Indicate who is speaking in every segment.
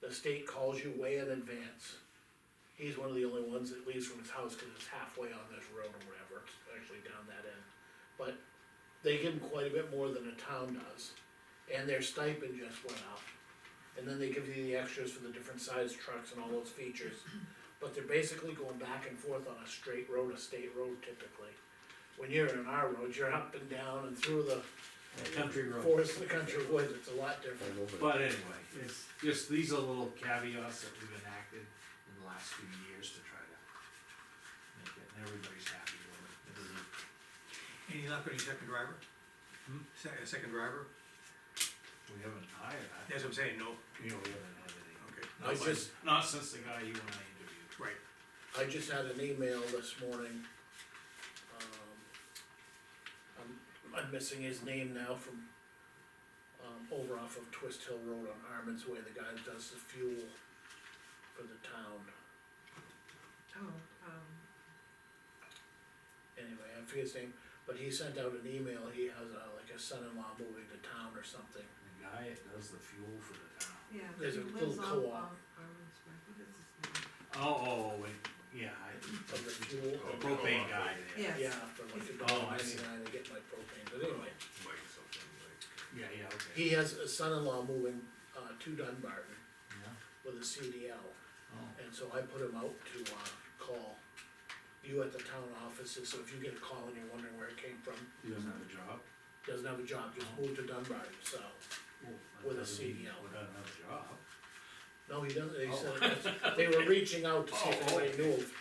Speaker 1: the state calls you way in advance. He's one of the only ones that leaves from his house, cause it's halfway on this road or whatever, it's actually down that end. But they give him quite a bit more than a town does, and their stipend just went up. And then they give you the extras for the different size trucks and all those features. But they're basically going back and forth on a straight road, a state road typically. When you're in our road, you're up and down and through the
Speaker 2: country road.
Speaker 1: forest, the country woods, it's a lot different.
Speaker 2: But anyway, it's just, these are little caveats that we've enacted in the last few years to try to make it, and everybody's happy with it. It doesn't-
Speaker 3: And you're not putting a second driver?
Speaker 2: Hmm?
Speaker 3: Se- a second driver?
Speaker 2: We haven't hired, I,
Speaker 3: That's what I'm saying, no,
Speaker 2: you know, we haven't had any.
Speaker 3: okay,
Speaker 2: Not
Speaker 1: I
Speaker 2: since-
Speaker 1: just-
Speaker 2: Not since the guy you and I interviewed.
Speaker 3: right,
Speaker 1: I just had an email this morning. um, I'm, I'm missing his name now from, um, over off of Twist Hill Road on Armin's Way, the guy that does the fuel for the town.
Speaker 4: Oh, um,
Speaker 1: anyway, I forget his name, but he sent out an email, he has a, like a son-in-law moving to town or something.
Speaker 2: The guy that does the fuel for the town.
Speaker 4: yeah. but
Speaker 1: There's
Speaker 4: he
Speaker 1: a
Speaker 4: lives
Speaker 1: little co-op.
Speaker 4: off of Armin's Way. What is his name?
Speaker 2: Oh, oh, oh, wait, yeah, I,
Speaker 1: Of the fuel.
Speaker 2: the Oh, propane guy there.
Speaker 4: Yes.
Speaker 1: Yeah, for like a
Speaker 2: Oh,
Speaker 1: dollar
Speaker 2: I see.
Speaker 1: ninety-nine to get my propane, but anyway,
Speaker 5: Like something like,
Speaker 2: Yeah, yeah, okay.
Speaker 1: he has a son-in-law moving, uh, to Dunbarton
Speaker 2: Yeah,
Speaker 1: with a CDL.
Speaker 2: oh,
Speaker 1: And so I put him out to, uh, call you at the town offices, so if you get a call and you're wondering where it came from,
Speaker 2: he doesn't have a job?
Speaker 1: doesn't have a job, just
Speaker 2: Oh.
Speaker 1: moved to Dunbarton, so.
Speaker 2: Well, that
Speaker 1: With a
Speaker 2: doesn't mean
Speaker 1: CDL.
Speaker 2: Without another job.
Speaker 1: No, he doesn't, they
Speaker 2: Oh.
Speaker 1: said, they were reaching out to see if
Speaker 2: Oh, oh.
Speaker 1: anybody knew of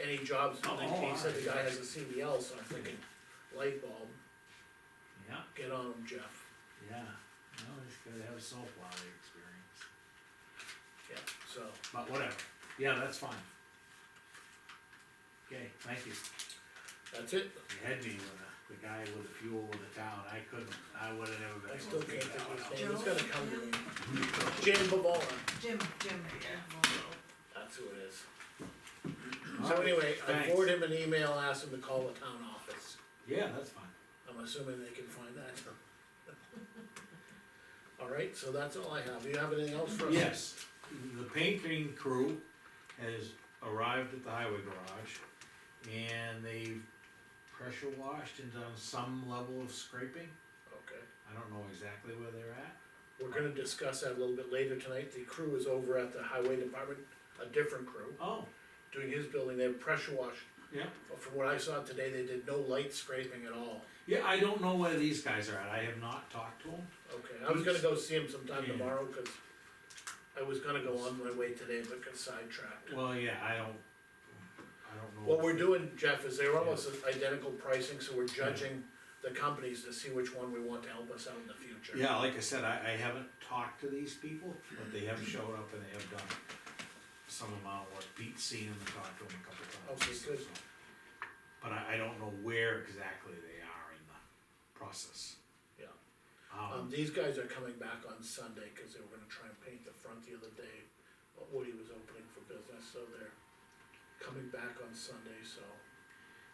Speaker 1: any jobs,
Speaker 2: Oh,
Speaker 1: like he said the guy
Speaker 2: alright.
Speaker 1: has a CDL, so I'm thinking, light bulb,
Speaker 2: Yeah,
Speaker 1: get on him, Jeff.
Speaker 2: yeah, no, he's gotta have some plowing experience,
Speaker 1: Yeah, so,
Speaker 2: but whatever, yeah, that's fine. Okay, thank you,
Speaker 1: that's it,
Speaker 2: you had me with the, the guy with the fuel with the town, I couldn't, I would've never been
Speaker 1: I
Speaker 2: able
Speaker 1: still
Speaker 2: to
Speaker 1: can't think
Speaker 2: figure that one
Speaker 1: of
Speaker 2: out.
Speaker 1: his name, it's gonna
Speaker 4: Joe?
Speaker 1: come to me. Jim Babola,
Speaker 4: Jim, Jim, Jim.
Speaker 1: that's who it is. So
Speaker 2: Alright,
Speaker 1: anyway, I
Speaker 2: thanks.
Speaker 1: forwarded him an email, asked him to call the town office,
Speaker 2: Yeah, that's fine,
Speaker 1: I'm assuming they can find that. Alright, so that's all I have, you have anything else for us?
Speaker 2: yes, the painting crew has arrived at the highway garage, and they've pressure washed and done some level of scraping,
Speaker 1: Okay.
Speaker 2: I don't know exactly where they're at.
Speaker 1: We're gonna discuss that a little bit later tonight, the crew is over at the highway department, a different crew,
Speaker 2: Oh,
Speaker 1: doing his building, they have pressure washed.
Speaker 2: yeah,
Speaker 1: But From what I saw today, they did no light scraping at all,
Speaker 2: yeah, I don't know where these guys are at, I have not talked to them,
Speaker 1: okay, I was gonna go see him sometime
Speaker 2: Yeah.
Speaker 1: tomorrow, cause I was gonna go on my way today, but got sidetracked.
Speaker 2: well, yeah, I don't, I don't know.
Speaker 1: What we're doing, Jeff, is they're almost identical pricing, so we're judging the companies to see which one we want to help us out in the future.
Speaker 2: Yeah, like I said, I, I haven't talked to these people, but they have showed up and they have done some amount of work, Pete's seen them and talked to them a couple times.
Speaker 1: Okay, good.
Speaker 2: so. But I, I don't know where exactly they are in the process.
Speaker 1: Yeah. Um,
Speaker 2: Um,
Speaker 1: these guys are coming back on Sunday, cause they were gonna try and paint the front the other day, but Woody was opening for business, so they're coming back on Sunday, so,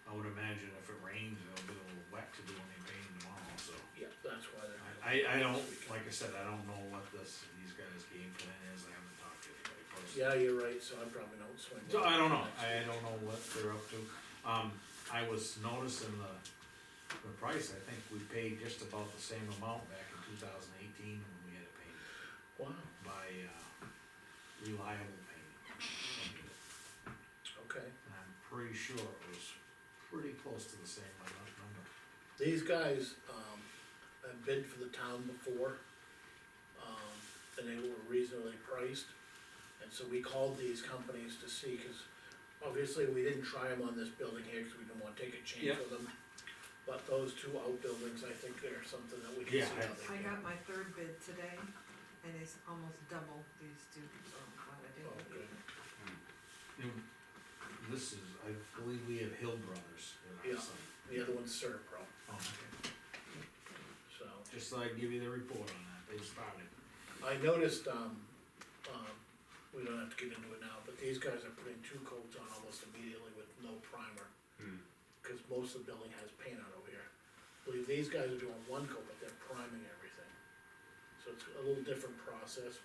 Speaker 2: I would imagine if it rains, it'll be a little wet to do any painting tomorrow, so.
Speaker 1: yeah, that's why they're.
Speaker 2: I, I don't, like I said, I don't know what this, these guys' game plan is, I haven't talked to anybody personally.
Speaker 1: Yeah, you're right, so I probably don't swing.
Speaker 2: So I don't know, I don't know what they're up to. Um, I was noticing the, the price, I think we paid just about the same amount back in two thousand eighteen when we had it painted
Speaker 1: Wow,
Speaker 2: by, uh, Reliable Paint.
Speaker 1: okay,
Speaker 2: And I'm pretty sure it was pretty close to the same amount number.
Speaker 1: these guys, um, have bid for the town before, um, and they were reasonably priced. And so we called these companies to see, cause obviously we didn't try them on this building here, cause we didn't wanna take a
Speaker 2: Yeah.
Speaker 1: chance with them. But those two outbuildings, I think they're something that we can
Speaker 2: Yeah,
Speaker 1: see
Speaker 2: I-
Speaker 1: how they
Speaker 4: I
Speaker 1: do.
Speaker 4: got my third bid today, and it's almost double these two, so I'm glad I did.
Speaker 1: Oh, good.
Speaker 2: And This is, I believe we have Hill Brothers in
Speaker 1: Yeah.
Speaker 2: our site.
Speaker 1: The other one's Serpro,
Speaker 2: Oh, okay.
Speaker 1: so.
Speaker 2: Just thought I'd give you the report on that, they started.
Speaker 1: I noticed, um, um, we don't have to get into it now, but these guys are putting two coats on almost immediately with no primer. Cause most of the building has paint on over here. I Believe these guys are doing one coat, but they're priming everything. So it's a little different process,